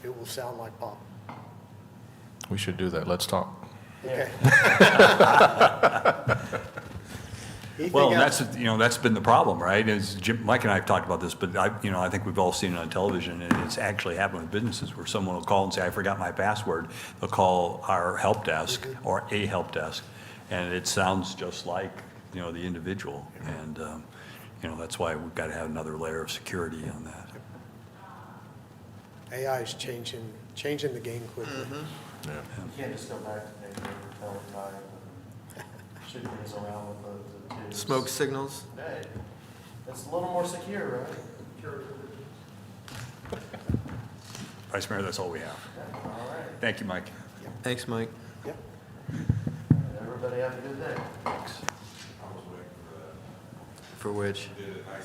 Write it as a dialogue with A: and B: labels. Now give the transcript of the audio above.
A: will sound like pop.
B: We should do that. Let's talk.
A: Okay. Anything
C: Well, and
A: else?
C: that's, you know, that's been the problem, right? Is Jim, Mike and I have talked about this, but I, you know, I think we've all seen it on television, and it's actually happened with businesses where someone will call and say, I forgot my password. They'll call our help desk or a help desk, and it sounds just like, you know, the individual. And, um, you know, that's why we've got to have another layer of security on that.
A: AI is changing, changing the game quickly.
D: You can't just go back to Nate and tell him I should things around with the- the two.
E: Smoke signals?
D: Hey, it's a little more secure, right?
C: Vice Mayor, that's all we have.
D: All right,
C: Thank you, Mike.
E: Thanks, Mike.
A: Yep.
D: everybody have a good day.
E: For which?